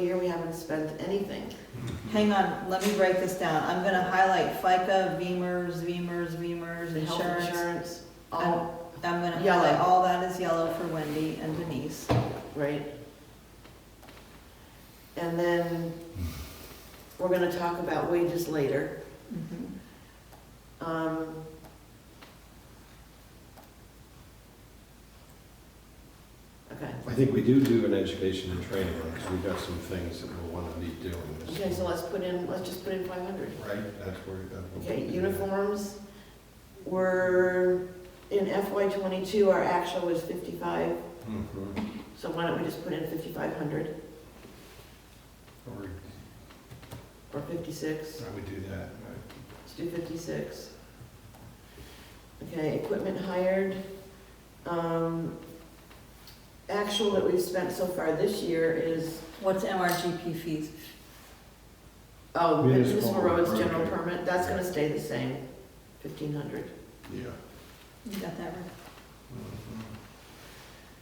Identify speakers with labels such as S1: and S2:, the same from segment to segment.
S1: year, we haven't spent anything.
S2: Hang on, let me break this down. I'm gonna highlight FICA, VEMR's, VEMR's, VEMR's,
S1: The health
S2: insurance.
S1: insurance, all,
S2: I'm gonna
S1: Yellow.
S2: highlight all that is yellow for Wendy and Denise.
S1: Um, right? And then we're gonna talk about wages later.
S2: Mm-hmm.
S1: Um, Okay,
S3: I think we do do an education and training, because we've got some things that we'll want to be doing. this
S1: okay, so
S3: year.
S1: let's put in, let's just put in five hundred.
S3: Right, that's where, that's what. we
S1: Okay,
S3: do.
S1: uniforms were, in FY twenty-two, our actual was fifty-five,
S3: Mhm.
S1: so why don't we just put in fifty-five hundred
S3: Or,
S1: or fifty-six?
S3: I would do that.
S1: Let's do fifty-six. Okay, equipment hired. Um, Actual that we've spent so far this year is,
S2: What's MRGP fees?
S1: oh, municipal
S3: Municipal
S1: roads general
S3: road.
S1: permit, that's gonna stay the same, fifteen hundred.
S3: Yeah.
S2: You got that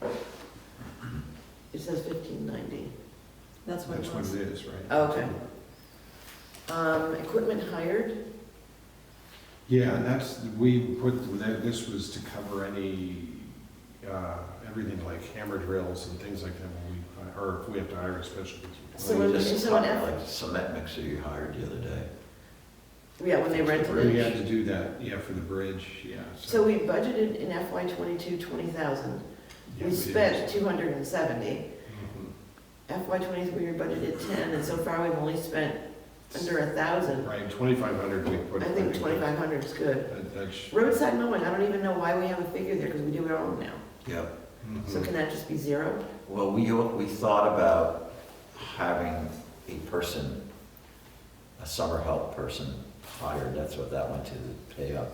S2: right?
S3: Mhm.
S1: It says fifteen ninety.
S2: That's what
S3: That's
S2: it
S3: what
S2: was.
S3: it is, right?
S1: Oh, Okay. Um, equipment hired,
S3: Yeah, and that's, we put, that. this was to cover any, uh, everything like hammer drills and things like that, when we, or if we have to hire a special.
S1: So
S4: We
S1: when-
S4: just
S1: so when
S4: talked
S1: F-
S4: about the Cement mixer you hired the other day.
S1: yeah, when they rent
S3: Or We
S1: it.
S3: had to do that, yeah, for the bridge, yeah.
S1: So we budgeted in FY twenty-two, twenty thousand.
S3: Yeah,
S1: We
S3: did.
S1: spent two hundred and seventy.
S3: Mhm.
S1: FY twenty-three, we budgeted ten, and so far we've only spent under a thousand.
S3: Right, twenty-five hundred we put.
S1: I think twenty-five hundred is good.
S3: That- That's.
S1: Roadside mowing, I don't even know why we have a figure there, because we do it all now.
S4: Yeah.
S3: Mm-hmm.
S1: So
S4: Hmm.
S1: can that just be zero?
S4: Well, we, we thought about having a person, a summer help person hired, that's what that went to, the pay up.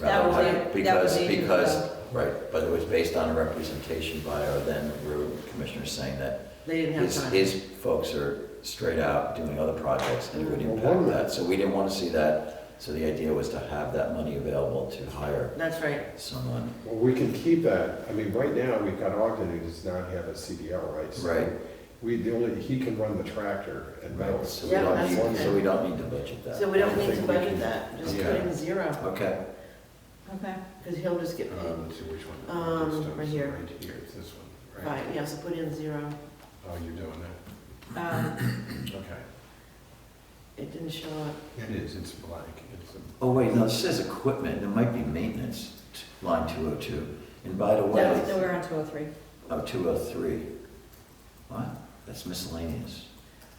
S2: That was
S4: Rather than-
S2: it. That
S4: Because,
S2: was it.
S4: because, right, but it was based on a representation by our then road commissioner saying that
S1: They didn't have
S4: his,
S1: time.
S4: his folks are straight out doing other projects and it would
S3: Well, one
S4: impact
S3: of
S4: that. So we didn't want to see that, so the idea was to have that money available to hire
S1: That's right.
S4: someone.
S3: Well, we can keep that, I mean, right now, we've got Ogden who does not have a CDL, right? So
S4: Right.
S3: We, the only, he can run the tractor and mow
S4: Right,
S3: it.
S4: so we
S1: Yeah,
S4: don't
S1: that's
S4: need, so
S1: okay.
S4: we don't need to budget that.
S1: So we don't
S3: I
S1: need to
S3: think we
S1: budget
S3: can-
S1: that, just put
S4: yeah.
S1: in zero,
S4: Okay,
S2: Okay.
S1: because he'll just get
S3: Uh,
S4: Um,
S1: paid.
S3: let's see which one.
S1: Um,
S3: This stuff's
S1: right here.
S3: Right here, it's this one, right?
S1: Right, yeah, so put in zero.
S3: Oh, you're doing that,
S2: Um,
S3: okay.
S1: It didn't show up.
S3: It is, it's blank, it's a.
S4: oh wait, no, it says equipment, it might be maintenance, t- line two oh two. And by the
S2: That's,
S4: way,
S2: we're on two oh three.
S4: oh, two oh three, what? That's miscellaneous.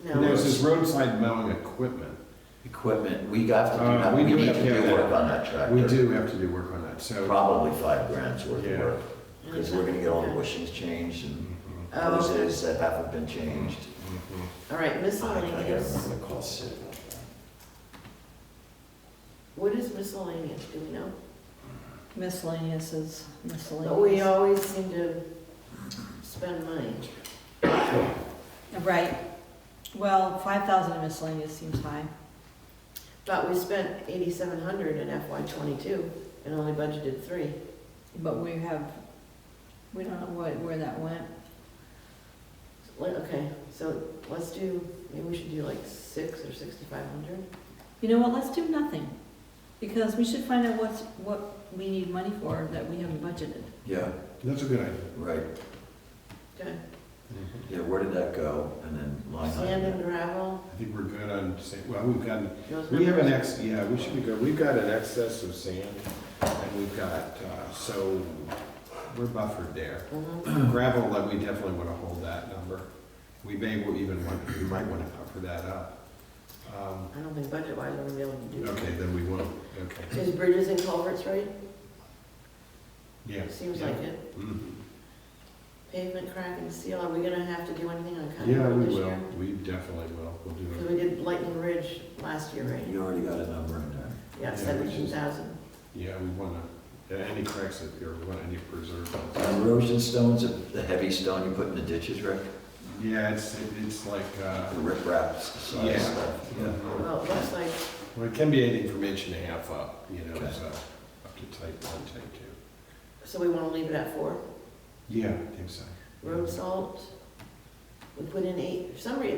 S3: And
S1: No,
S3: There's this roadside mowing equipment.
S4: Equipment, we got to do
S3: Uh,
S4: that,
S3: we
S4: we
S3: do
S4: need
S3: have
S4: to
S3: to have
S4: do work
S3: that.
S4: on that tractor.
S3: We do have to do work on that, so.
S4: Probably five grand's worth of
S3: Yeah.
S4: work, because we're gonna get all the
S1: Okay.
S4: bushings changed and
S3: Mhm,
S1: Oh, okay.
S4: hoses that haven't been changed.
S3: mhm.
S1: All right,
S4: I gotta
S1: miscellaneous.
S4: remember to call Sid about that.
S1: What is miscellaneous, do we know?
S2: Miscellaneous is
S1: But we
S2: miscellaneous.
S1: always seem to spend money.
S2: Right. Well, five thousand miscellaneous seems high.
S1: But we spent eighty-seven hundred in FY twenty-two and only budgeted three.
S2: But we have, we don't know what, where that went.
S1: Well, Okay, so let's do, maybe we should do like six or sixty-five hundred?
S2: You know what, let's do nothing, because we should find out what's, what we need money for that we haven't budgeted.
S4: Yeah,
S3: That's a good idea.
S4: right,
S1: Okay.
S3: Mhm.
S4: yeah, where did that go? And then line item.
S1: Sand and gravel,
S3: I think we're good on, sa- well, we've got
S1: those
S3: We have an
S1: numbers.
S3: ex, yeah, we should be good. We've got an excess of sand and we've got, uh, so we're buffered there.
S1: Mhm.
S3: Gravel, that we definitely want to hold that number. We may wa- even want, we might want to cover that up. Um,
S1: I don't think budget-wise we're gonna be able to do
S3: Okay,
S1: that.
S3: then we won't, okay.
S1: Is bridges and culverts right?
S3: Yeah.
S1: Seems
S3: yeah.
S1: like it.
S3: Mhm.
S1: Pavement crack and seal, are we gonna have to do anything on Cotton
S3: Yeah,
S1: Road
S3: we
S1: this
S3: will.
S1: year?
S3: We definitely will. We'll
S1: Because
S3: do
S1: we
S3: it.
S1: did Lightning Ridge last year, right?
S4: You already got a number in there.
S3: Yeah,
S1: Yeah,
S3: we should-
S1: seventeen thousand.
S3: Yeah, we want to, any cracks that there, we want any preserve. those.
S4: Erosion stones, the heavy stone you put in the ditches, Rick?
S3: Yeah, it's, it's like, uh,
S4: The rip wraps, size
S3: Yeah.
S4: stuff.
S3: yeah.
S1: Well, it looks like
S3: Well, it can be anything from inch and a half up, you know,
S4: Okay.
S3: so up to type one, type two.
S1: So we want to leave it at four.
S3: Yeah, I think so.
S1: Road salt, we put in eight, for some reason,